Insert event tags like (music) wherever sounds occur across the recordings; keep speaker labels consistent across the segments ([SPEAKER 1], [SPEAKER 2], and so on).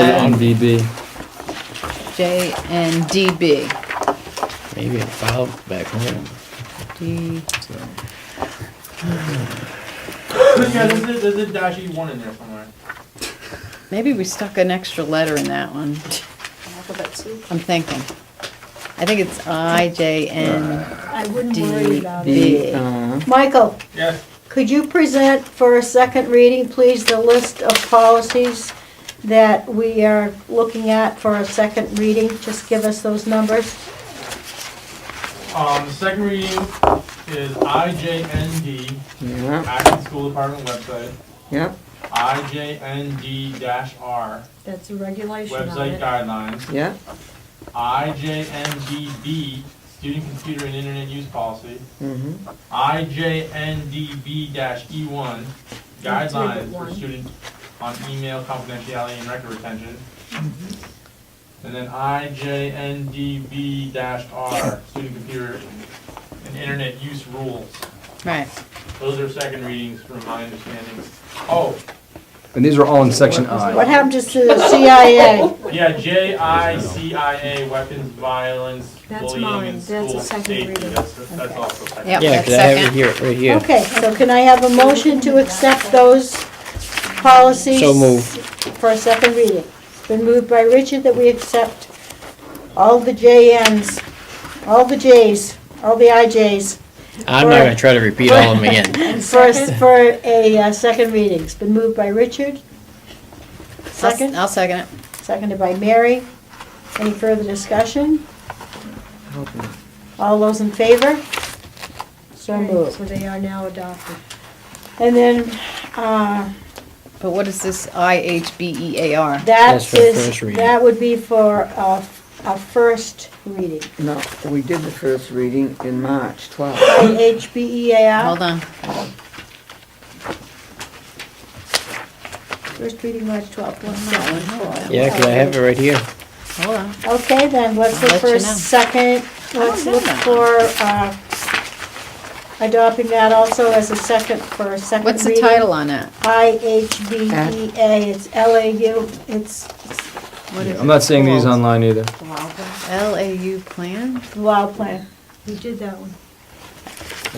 [SPEAKER 1] on DB.
[SPEAKER 2] J and DB.
[SPEAKER 1] Maybe a file back home.
[SPEAKER 2] D,
[SPEAKER 3] Yeah, there's, a- there's a dash E one in there somewhere.
[SPEAKER 2] maybe we stuck an extra letter in that one,
[SPEAKER 4] Alphabet soup.
[SPEAKER 2] I'm thinking. I think it's I, J,
[SPEAKER 5] Uh,
[SPEAKER 2] N,
[SPEAKER 4] I wouldn't worry
[SPEAKER 2] D,
[SPEAKER 4] about it.
[SPEAKER 5] E,
[SPEAKER 2] B.
[SPEAKER 6] Michael,
[SPEAKER 3] Yes,
[SPEAKER 6] could you present for a second reading, please, the list of policies that we are looking at for a second reading? Just give us those numbers.
[SPEAKER 3] um, the second reading is IJND,
[SPEAKER 7] Yeah,
[SPEAKER 3] Acton School Department website,
[SPEAKER 7] yeah,
[SPEAKER 3] IJND R,
[SPEAKER 4] That's a regulation on
[SPEAKER 3] website
[SPEAKER 4] it.
[SPEAKER 3] guidelines,
[SPEAKER 7] yeah,
[SPEAKER 3] IJNDB, student computer and internet use policy,
[SPEAKER 7] mm-hmm,
[SPEAKER 3] IJNDB E one,
[SPEAKER 4] That's number
[SPEAKER 3] guidelines for
[SPEAKER 4] one.
[SPEAKER 3] student on email confidentiality and record retention. And then IJNDB R, student computer and internet use rules.
[SPEAKER 2] Right,
[SPEAKER 3] Those are second readings from my understanding. Oh,
[SPEAKER 5] And these are all in section I.
[SPEAKER 6] What happened to the CIA?
[SPEAKER 3] yeah, JICIA, weapons, violence,
[SPEAKER 4] That's
[SPEAKER 3] bullying
[SPEAKER 4] mine.
[SPEAKER 3] in
[SPEAKER 4] That's a
[SPEAKER 3] school
[SPEAKER 4] second
[SPEAKER 3] safety,
[SPEAKER 4] reading.
[SPEAKER 3] that's, that's also second.
[SPEAKER 2] Yep.
[SPEAKER 1] Yeah,
[SPEAKER 2] That's
[SPEAKER 1] because I have it
[SPEAKER 2] second.
[SPEAKER 1] here, right here.
[SPEAKER 6] Okay, so can I have a motion to accept those policies?
[SPEAKER 1] So moved.
[SPEAKER 6] For a second reading. It's been moved by Richard that we accept all the JNs, all the Js, all the IJs.
[SPEAKER 1] I'm not gonna try to repeat all of them
[SPEAKER 6] (laughs)
[SPEAKER 1] again.
[SPEAKER 6] And first, for a uh, second reading, it's been moved by Richard.
[SPEAKER 2] I'll s-
[SPEAKER 6] Second,
[SPEAKER 2] I'll second it.
[SPEAKER 6] seconded by Mary. Any further discussion?
[SPEAKER 7] okay.
[SPEAKER 6] All those in favor? So
[SPEAKER 4] Right,
[SPEAKER 6] moved.
[SPEAKER 4] So they are now adopted.
[SPEAKER 6] And then, uh,
[SPEAKER 2] But what is this I, H, B, E, A, R?
[SPEAKER 6] that
[SPEAKER 1] That's for
[SPEAKER 6] is,
[SPEAKER 1] first reading.
[SPEAKER 6] that would be for a, a first reading.
[SPEAKER 7] No, we did the first reading in March 12.
[SPEAKER 6] IHBEAR,
[SPEAKER 2] Hold on,
[SPEAKER 6] first reading March 12th, one second.
[SPEAKER 1] Yeah, because I have it right here.
[SPEAKER 2] hold on.
[SPEAKER 6] Okay, then, let's look
[SPEAKER 2] I'll let
[SPEAKER 6] for
[SPEAKER 2] you
[SPEAKER 6] a
[SPEAKER 2] know. Oh,
[SPEAKER 6] second, let's
[SPEAKER 2] know
[SPEAKER 6] look
[SPEAKER 2] that.
[SPEAKER 6] for uh, adopting that also as a second, for a second reading.
[SPEAKER 2] What's the title Uh, on that?
[SPEAKER 6] IHBEA, E it's LAU, it's
[SPEAKER 2] What is
[SPEAKER 5] I'm not seeing these
[SPEAKER 2] called?
[SPEAKER 5] online either.
[SPEAKER 2] L, A, U plan?
[SPEAKER 6] Wild Plan.
[SPEAKER 4] We did that one.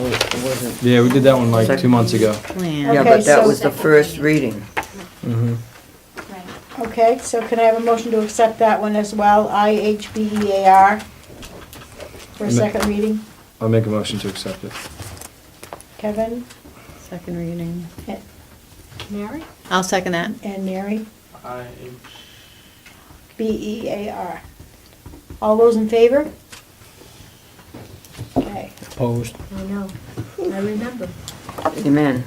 [SPEAKER 7] Oh, it wasn't.
[SPEAKER 5] Yeah, we did that one like two months ago.
[SPEAKER 2] Plan.
[SPEAKER 7] Yeah,
[SPEAKER 6] Okay,
[SPEAKER 7] but that
[SPEAKER 6] so-
[SPEAKER 7] was the first reading.
[SPEAKER 6] Okay, so can I have a motion to accept that one as well, IHBEAR, E for a
[SPEAKER 5] Ma-
[SPEAKER 6] second reading?
[SPEAKER 5] I'll make a motion to accept it.
[SPEAKER 6] Kevin
[SPEAKER 2] Second reading.
[SPEAKER 4] Mary?
[SPEAKER 2] I'll second that.
[SPEAKER 6] and Mary,
[SPEAKER 3] IH
[SPEAKER 6] B-E-A-R. All those in favor? Okay.
[SPEAKER 1] Opposed.
[SPEAKER 4] I know. I remember.
[SPEAKER 7] Amen.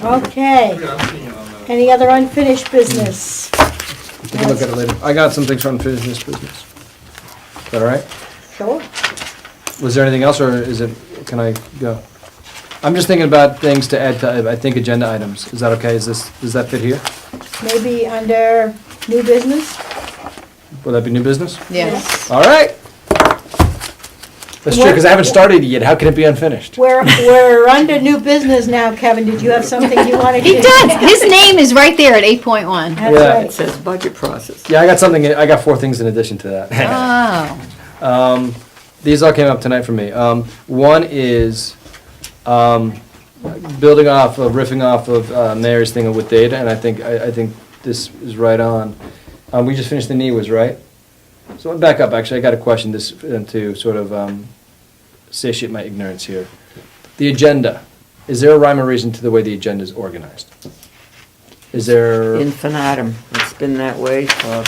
[SPEAKER 6] Okay.
[SPEAKER 3] Yeah, I'm seeing it on the.
[SPEAKER 6] Any other unfinished business?
[SPEAKER 5] We can look at it later. I got some things for unfinished business. Is that all right?
[SPEAKER 6] Sure.
[SPEAKER 5] Was there anything else, or is it, can I go? I'm just thinking about things to add to, I think, agenda items. Is that okay? Is this, does that fit here?
[SPEAKER 6] Maybe under new business?
[SPEAKER 5] Will that be new business?
[SPEAKER 2] Yes.
[SPEAKER 5] All right. That's true, because I haven't started it yet. How can it be unfinished?
[SPEAKER 6] We're, we're under new business now, Kevin. Did you have something you wanted to?
[SPEAKER 2] He does. His name is right there at
[SPEAKER 5] (laughs)
[SPEAKER 2] 8.1.
[SPEAKER 6] That's
[SPEAKER 5] Yeah.
[SPEAKER 7] It
[SPEAKER 6] right.
[SPEAKER 7] says budget process.
[SPEAKER 5] Yeah, I got something, I got four things in addition to that.
[SPEAKER 2] Oh.
[SPEAKER 5] Um, these all came up tonight for me. Um, one is, um, building off of, riffing off of uh, Mary's thing with data, and I think, I, I think this is right on. Um, we just finished the NEWA's, right? So I'm back up, actually, I got a question this, uh, to sort of, um, satiate my ignorance here. The agenda, is there a rhyme or reason to the way the agenda is organized? Is there,
[SPEAKER 7] Infinitum. It's been that way for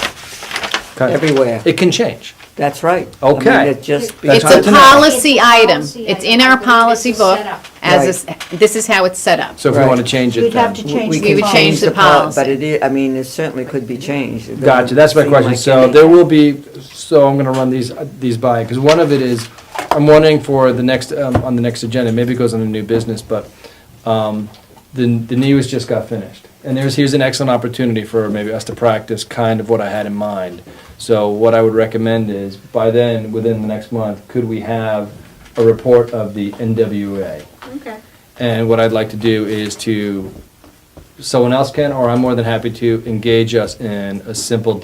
[SPEAKER 5] kind-
[SPEAKER 7] everywhere.
[SPEAKER 5] it can change.
[SPEAKER 7] That's right. I
[SPEAKER 5] Okay.
[SPEAKER 7] mean, it just.
[SPEAKER 2] It's
[SPEAKER 5] That's hard
[SPEAKER 2] a
[SPEAKER 5] to know.
[SPEAKER 2] policy item.
[SPEAKER 4] Policy
[SPEAKER 2] It's
[SPEAKER 4] item.
[SPEAKER 2] in our policy
[SPEAKER 4] It's a
[SPEAKER 2] book
[SPEAKER 4] setup.
[SPEAKER 2] as, is- this is how it's set up.
[SPEAKER 5] So if we
[SPEAKER 7] Right.
[SPEAKER 5] want to change it,
[SPEAKER 6] You'd have to
[SPEAKER 5] then-
[SPEAKER 6] change
[SPEAKER 7] we
[SPEAKER 6] the
[SPEAKER 7] can
[SPEAKER 2] We would
[SPEAKER 6] policy.
[SPEAKER 2] change the
[SPEAKER 7] pol-
[SPEAKER 2] policy.
[SPEAKER 7] But it is, I mean, it certainly could be changed. It doesn't
[SPEAKER 5] Gotcha, that's my
[SPEAKER 7] seem
[SPEAKER 5] question.
[SPEAKER 7] like
[SPEAKER 5] So
[SPEAKER 7] any-
[SPEAKER 5] there will be, so I'm gonna run these, uh, these by, because one of it is, I'm wondering for the next, um, on the next agenda, maybe it goes on a new business, but, um, the, the news just got finished. And there's, here's an excellent opportunity for maybe us to practice kind of what I had in mind. So what I would recommend is, by then, within the next month, could we have a report of the NWA?
[SPEAKER 4] Okay.
[SPEAKER 5] And what I'd like to do is to, someone else can, or I'm more than happy to engage us in a simple